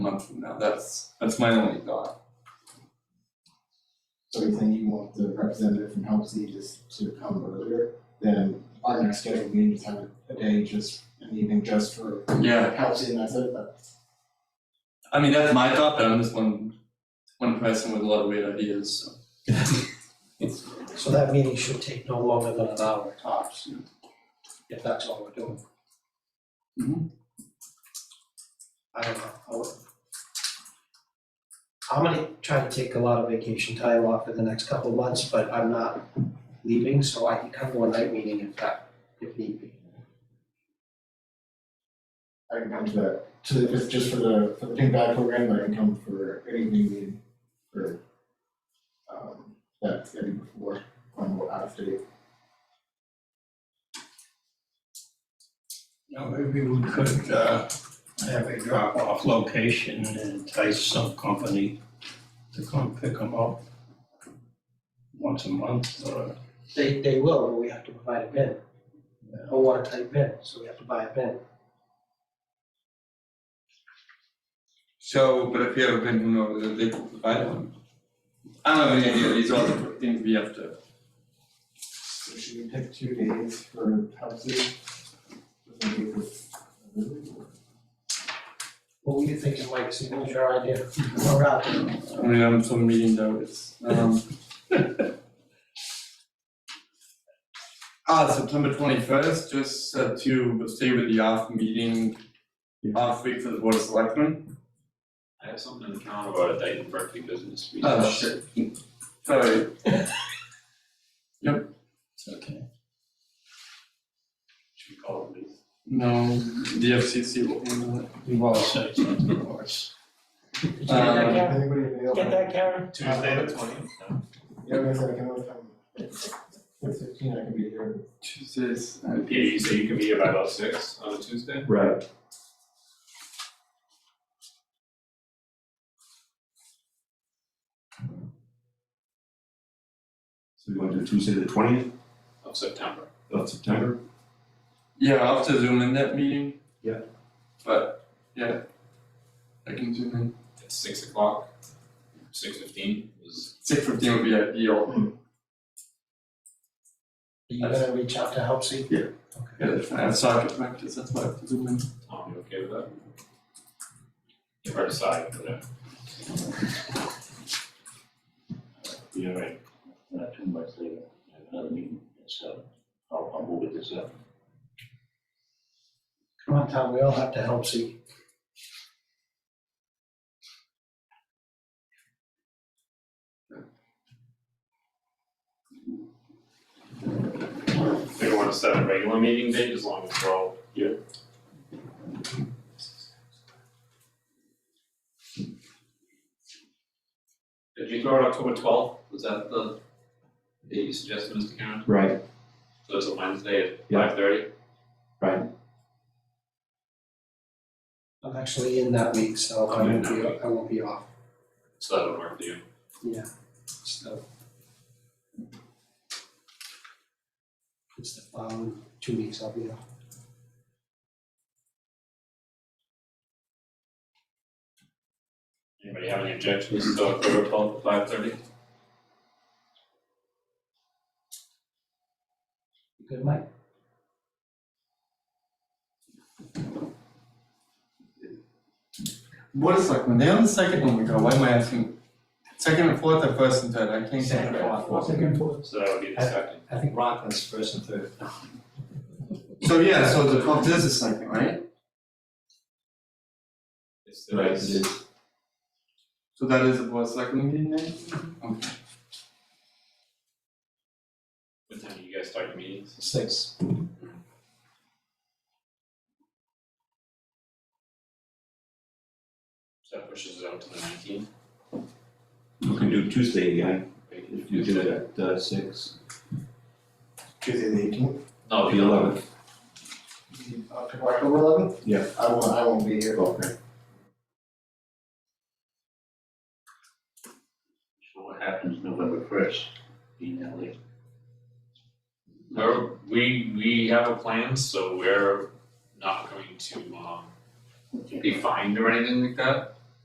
month from now, that's, that's my only thought. So you're saying you want the representative from Help Aegis to come earlier, then our next scheduled meeting is have a day just, an evening just for Yeah, Help Aegis, and that's it, but I mean, that's my thought, but I'm just one, one person with a lot of weird ideas, so. So that meeting should take no longer than an hour tops, Yeah. if that's all we're doing. Mhm. I don't know, I would- I'm gonna try to take a lot of vacation time off for the next couple of months, but I'm not leaving, so I can come to a night meeting if that, if need be. I can come to that, to the, just- just for the, for the Pink Bag program, but I can come for an evening meeting for um, that, maybe before, when we're out of date. Now, maybe we could uh, have a drop-off location and entice some company to come pick them up once a month or, They, they will, but we have to provide a bin, a watertight bin, so we have to buy a bin. So, but if you have a bin, who knows, they could provide one. I don't have any idea, these are all the things we have to, So should we pick two days for Help Aegis? What were you thinking, Mike, see, what was your idea? Or out there? I mean, I'm so meeting notes, um. Ah, September twenty-first, just uh, to stay with the off meeting, off week for the board of selectmen. I have something in the calendar about a Dayton Berkeley business meeting. Oh, shit. Sorry, it's okay. Should we call it a day? no, the FCC will handle it. We've all said something, of course. Um, Anybody available? Karen? Tuesday the twentieth? Yeah, I guess I can always come. Six fifteen, I can be here. Tuesdays, Yeah, you say E you can be here by about six on a Tuesday? Right. So we want to do Tuesday, the twentieth Of September. of September? yeah, I'll have to zoom in that meeting. Yeah. But, yeah, I can zoom in. At six o'clock, six fifteen is, Six fifteen would be E ideal, You gonna reach out to help see? yeah, I have soccer practice, that's why I have to zoom in. Tom, you okay with that? You better decide, but. uh, You're right, uh, two months later, I have another meeting, so I'll, I'll move it this up. Come on, Tom, we all have to help see. They don't wanna set a regular meeting date as long as we're all here. Did you throw out October twelfth? Was that the date you suggested, Mr. Karen? Right. So it's a Wednesday at Yeah. five thirty? I'm actually in that week, so I won't be, I won't be off, So that would work for you. so. It's the following two weeks I'll be off. Anybody have any objections to October twelfth at five thirty? You Good, Mike? Board of Selectmen, they're on the second one we go, why am I asking? Second and fourth or first and third, I can't think of it. So that would be the second. I think Rockland's first and third. So yeah, so the twelfth is the second, right? It's the next- So that is the Board of Selectmen meeting then? Okay. What time do you guys start your meetings? Six. So that pushes it out to the nineteenth. You can do Tuesday again, if you do it at uh, six, Tuesday the eighteenth, No, the eleventh. uh, October eleventh? Yeah. I won't, I won't be here. Okay. So what happens November first, being that late? We're, we, we have a plan, so we're not going to, um, be fined or anything like that.